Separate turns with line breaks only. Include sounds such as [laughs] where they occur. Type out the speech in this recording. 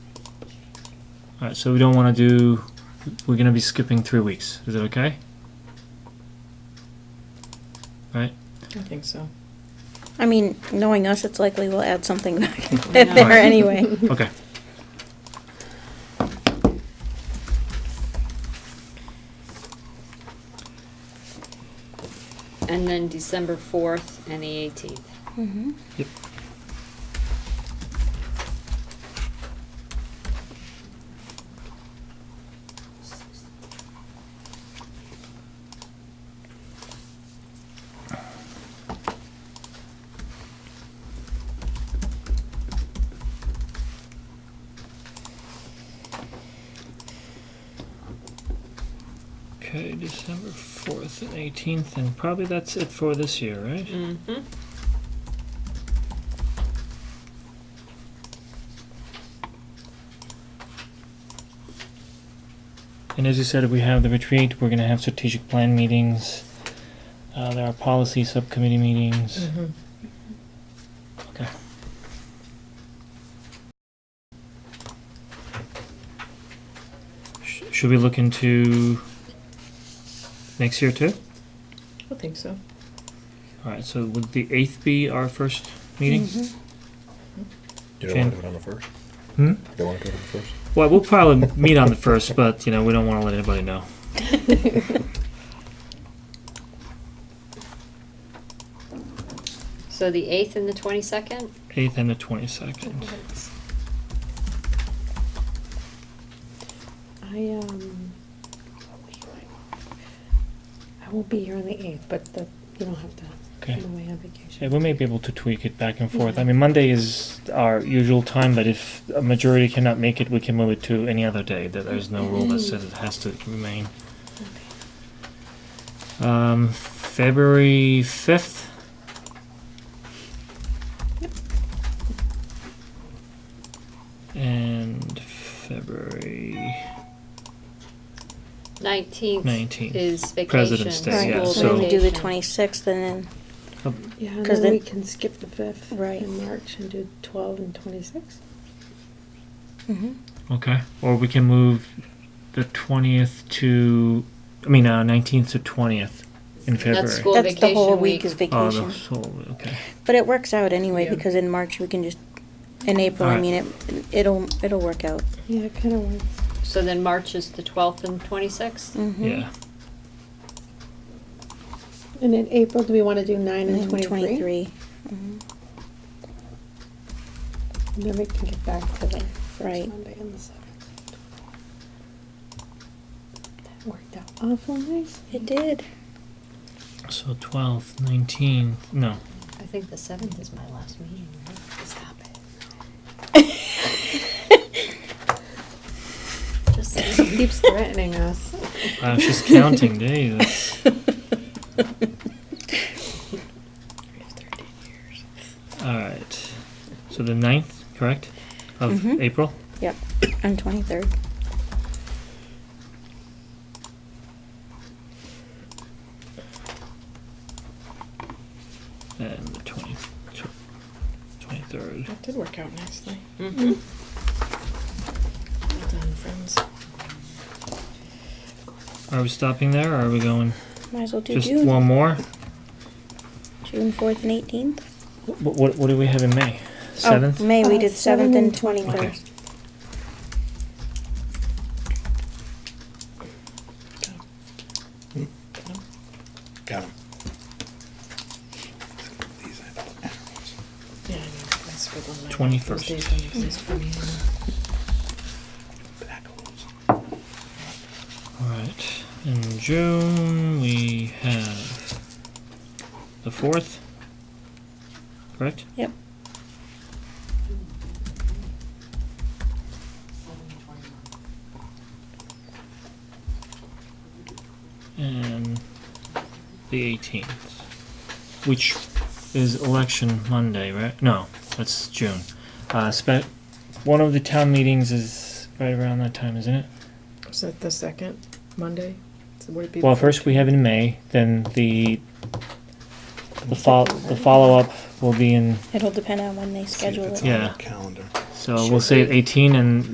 All right, so we don't want to do, we're going to be skipping three weeks. Is it okay?
I think so.
I mean, knowing us, it's likely we'll add
[laughs]
something back in
I know.
there anyway.
Okay.
And then December fourth and the eighteenth.
Mhm.
Okay, December 4th and 18th, and probably that's it for this year, right?
Mm-hmm.
And as you said, we have the retreat, we're going to have strategic plan meetings, uh, there are policy subcommittee meetings. Okay. Sh- Should we look into next year too?
I think so.
All right, so would the 8th be our first meeting?
Mhm.
You don't want
Jan-
to do it on the first?
Hmm?
You don't want to do it on the first?
Well, we'll probably meet on the first, but you know we don't want to let anybody know.
So the eighth and the twenty-second?
Eighth and the twenty second.
I, um, I won't be here on the eighth, but the, you don't have to,
Okay.
I'm away on vacation.
Yeah, we may be able to tweak it back and forth. I mean, Monday is our usual time, but if a majority cannot make it, we can move it to any other day. That there's no rule that says it has to remain. Um, February fifth. And February
Nineteenth
nineteenth.
is vacation.
President's Day,
Right,
yeah,
school
so we do the
vacation.
26th and
oh,
Yeah, and
'Cause
then we
then-
can skip the fifth
Right.
in March and do twelve and twenty-six.
then, mhm.
Okay. Or we can move the twentieth to, I mean, uh, nineteenth to twentieth in February.
That's school
that's the whole
vacation
week
week.
is
Oh, the
vacation.
whole- okay.
But it works out anyway,
Yeah.
because in March, we can just, in April, I
Alright.
mean, it, it'll, it'll work out.
Yeah, it kinda works.
So then March is the twelfth and twenty-sixth?
Mhm.
Yeah.
And in April, do we wanna do nine
And
and
then
twenty-three?
23, mhm.
And Then we can get back to the first
Right.
Monday and the seventh. That worked out awful nice.
It did.
So twelfth, nineteenth, no.
I think the seventh is my last meeting, right? Stop it.
[laughs]
Just saying.
Keeps threatening us.
I was just
[laughs]
counting days. That's- All right. So the ninth, correct, of
Mhm.
April.
Yep, on 23rd.
And the 20, tw- 23rd.
That did work out nicely. Mm-hmm.
Mhm.
Well done, friends.
Are we stopping there or are we going
Might as well do
just
June,
one more?
June 4th and 18th.
What, what, what do we have in May? Seventh?
Oh, May, we
Uh,
did
seventh
7th and
and
21st.
Got him.
Yeah, I know. I scribbled my
21st.
Those days don't exist for me anymore.
Alright, in June we have the 4th, correct?
Yep.
And the 18th, which is election Monday, right? No, that's June. Uh, spe- one of the town meetings is right around that time, isn't it?
Is that the second Monday? So would it be
Well,
the
first we have in May, then the, the fol- the follow-up will be in,
It'll depend on when they schedule it.
Yeah.
Calendar.
so we'll say 18 and